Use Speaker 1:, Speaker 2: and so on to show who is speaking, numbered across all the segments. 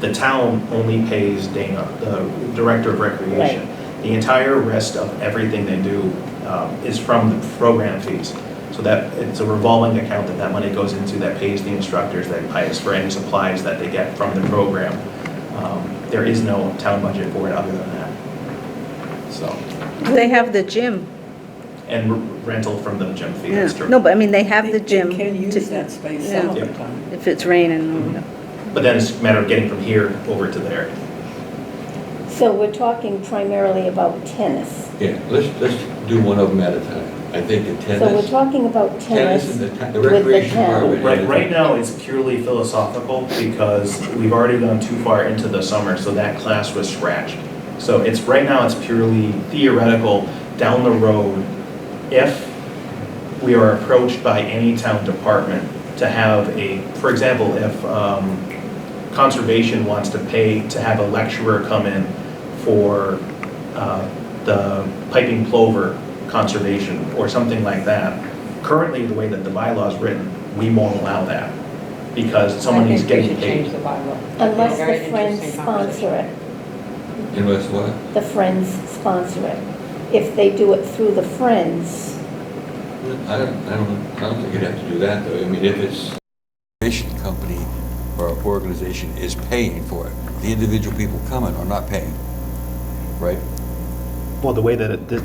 Speaker 1: the town only pays Dana, the Director of Recreation. The entire rest of everything they do um, is from the program fees. So that, it's a revolving account that that money goes into that pays the instructors, that pays for any supplies that they get from the program. Um, There is no town budget for it other than that. So,
Speaker 2: They have the gym.
Speaker 1: and rental from the gym fee, that's
Speaker 2: Yeah.
Speaker 1: true.
Speaker 2: No, but I mean, they have
Speaker 3: They-
Speaker 2: the gym.
Speaker 3: They can
Speaker 2: to-
Speaker 3: use that space
Speaker 2: yeah.
Speaker 3: some of the
Speaker 1: Yeah.
Speaker 3: time.
Speaker 2: If it's raining.
Speaker 1: But then it's a matter of getting from here over to there.
Speaker 4: So we're talking primarily about tennis.
Speaker 5: Yeah, let's, let's do one of them at a time. I think the
Speaker 4: So we're
Speaker 5: tennis,
Speaker 4: talking about
Speaker 5: tennis
Speaker 4: tennis.
Speaker 5: and the ti- the
Speaker 4: with the
Speaker 5: recreation
Speaker 4: town.
Speaker 5: part. of it.
Speaker 1: Right, right now, it's purely philosophical because we've already gone too far into the summer, so that class was scratched. So it's, right now, it's purely theoretical, down the road, if we are approached by any town department to have a, for example, if um, conservation wants to pay to have a lecturer come in for uh, the piping plover conservation or something like that, currently, the way that the bylaw is written, we won't allow that because someone is getting
Speaker 6: I think we should change
Speaker 1: paid.
Speaker 6: the bylaw.
Speaker 4: Unless
Speaker 6: Very
Speaker 4: the friends
Speaker 6: interesting
Speaker 4: sponsor
Speaker 6: conversation.
Speaker 4: it,
Speaker 5: Unless what?
Speaker 4: the friends sponsor it. If they do it through the friends,
Speaker 5: I don't, I don't, I don't think you'd have to do that, though. I mean, if it's, recreation company or organization is paying for it, the individual people coming are not paying, right?
Speaker 1: Well, the way that, it- the-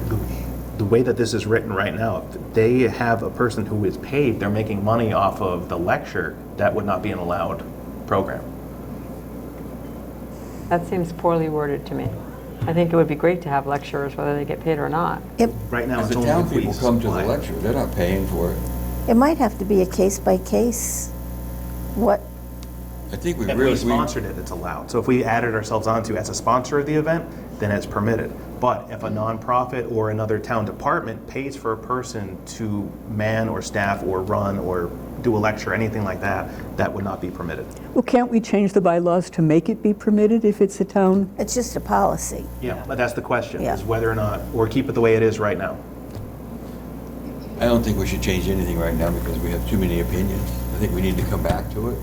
Speaker 1: the way that this is written right now, if they have a person who is paid, they're making money off of the lecture, that would not be an allowed program.
Speaker 6: That seems poorly worded to me. I think it would be great to have lecturers, whether they get paid or not.
Speaker 1: Right now,
Speaker 5: Because
Speaker 1: it's
Speaker 5: the
Speaker 1: only
Speaker 5: town
Speaker 1: if we
Speaker 5: people come to the
Speaker 1: supply.
Speaker 5: lecture, they're not paying for it.
Speaker 7: It might have to be a case by case. What,
Speaker 5: I think we
Speaker 1: If
Speaker 5: really,
Speaker 1: we
Speaker 5: we,
Speaker 1: sponsored it, it's allowed. So if we added ourselves onto as a sponsor of the event, then it's permitted. But if a nonprofit or another town department pays for a person to man or staff or run or do a lecture, anything like that, that would not be permitted.
Speaker 8: Well, can't we change the bylaws to make it be permitted if it's a town?
Speaker 7: it's just a policy.
Speaker 1: Yeah, but that's the question,
Speaker 7: Yeah.
Speaker 1: is whether or not, or keep it the way it is right now.
Speaker 5: I don't think we should change anything right now because we have too many opinions. I think we need to come back to it.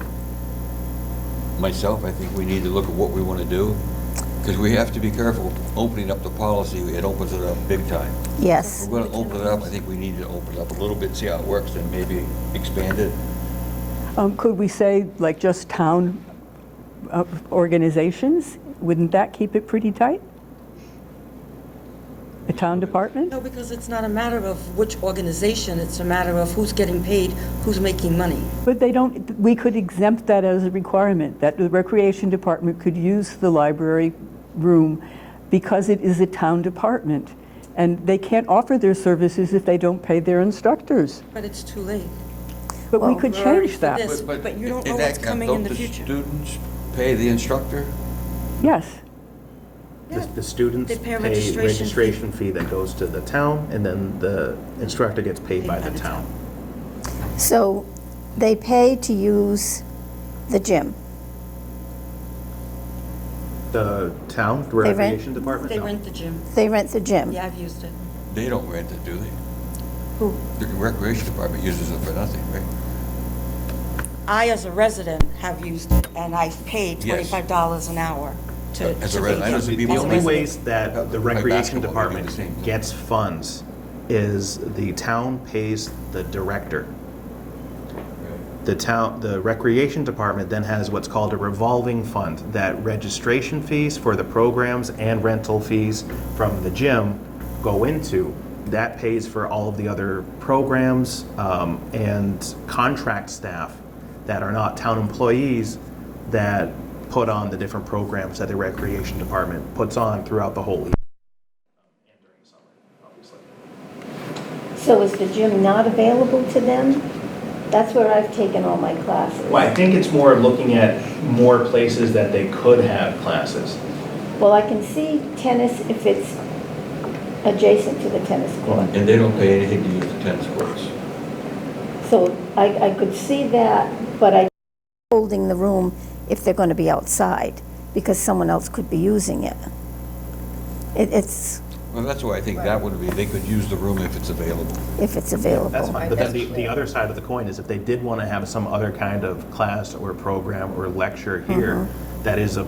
Speaker 5: Myself, I think we need to look at what we want to do, because we have to be careful opening up the policy. It opens it up big time. If
Speaker 7: Yes.
Speaker 5: we're going to open it up, I think we need to open it up a little bit, see how it works, and maybe expand it.
Speaker 8: Um, Could we say, like, just town uh, organizations? Wouldn't that keep it pretty tight? A town department?
Speaker 9: No, because it's not a matter of which organization, it's a matter of who's getting paid, who's making money.
Speaker 8: But they don't, we could exempt that as a requirement, that the recreation department could use the library room because it is a town department, and they can't offer their services if they don't pay their instructors.
Speaker 9: But it's too late.
Speaker 8: But we could
Speaker 9: We're already
Speaker 8: change
Speaker 9: for
Speaker 8: that.
Speaker 9: this, But you don't
Speaker 5: in
Speaker 9: know
Speaker 5: that
Speaker 9: what's
Speaker 5: camp,
Speaker 9: coming
Speaker 5: don't
Speaker 9: in the
Speaker 5: The
Speaker 9: future.
Speaker 5: students pay the instructor?
Speaker 8: Yes.
Speaker 1: The- The students
Speaker 9: They pay
Speaker 1: pay
Speaker 9: a registration fee.
Speaker 1: registration fee that goes to the town, and then the instructor gets paid by the town.
Speaker 7: So they pay to use the gym.
Speaker 1: The town
Speaker 7: rent-
Speaker 1: recreation department?
Speaker 9: They
Speaker 1: No.
Speaker 9: rent the gym.
Speaker 7: They rent the gym.
Speaker 9: Yeah, I've used it.
Speaker 5: They don't rent it, do they?
Speaker 9: Who?
Speaker 5: The recreation department uses it for nothing, right?
Speaker 9: I, as a resident, have used it, and I've paid
Speaker 5: Yes.
Speaker 9: $25 an hour to.
Speaker 5: As a
Speaker 9: to be
Speaker 5: resident, I
Speaker 9: there.
Speaker 5: know some
Speaker 1: The
Speaker 5: people-
Speaker 1: the
Speaker 9: As a
Speaker 1: only
Speaker 9: resident.
Speaker 1: ways that the
Speaker 5: By
Speaker 1: recreation
Speaker 5: basketball, they do the
Speaker 1: department
Speaker 5: same thing.
Speaker 1: gets funds is the town pays the director. The town, the recreation department then has what's called a revolving fund, that registration fees for the programs and rental fees from the gym go into. That pays for all of the other programs um, and contract staff that are not town employees that put on the different programs that the recreation department puts on throughout the whole year.
Speaker 4: so is the gym not available to them? That's where I've taken all my classes.
Speaker 1: Well, I think it's more of looking at more places that they could have classes.
Speaker 4: Well, I can see tennis if it's adjacent to the tennis court.
Speaker 5: And they don't pay anything to use the tennis courts.
Speaker 4: So I, I could see that, but I
Speaker 7: Holding the room if they're going to be outside because someone else could be using it. It- It's,
Speaker 5: Well, that's why I think that would be, they could use the room if it's available.
Speaker 7: if it's
Speaker 1: That's
Speaker 7: available.
Speaker 1: fine, but then the, the other side of the coin is if they did want to have some other kind of class or program or lecture here that is a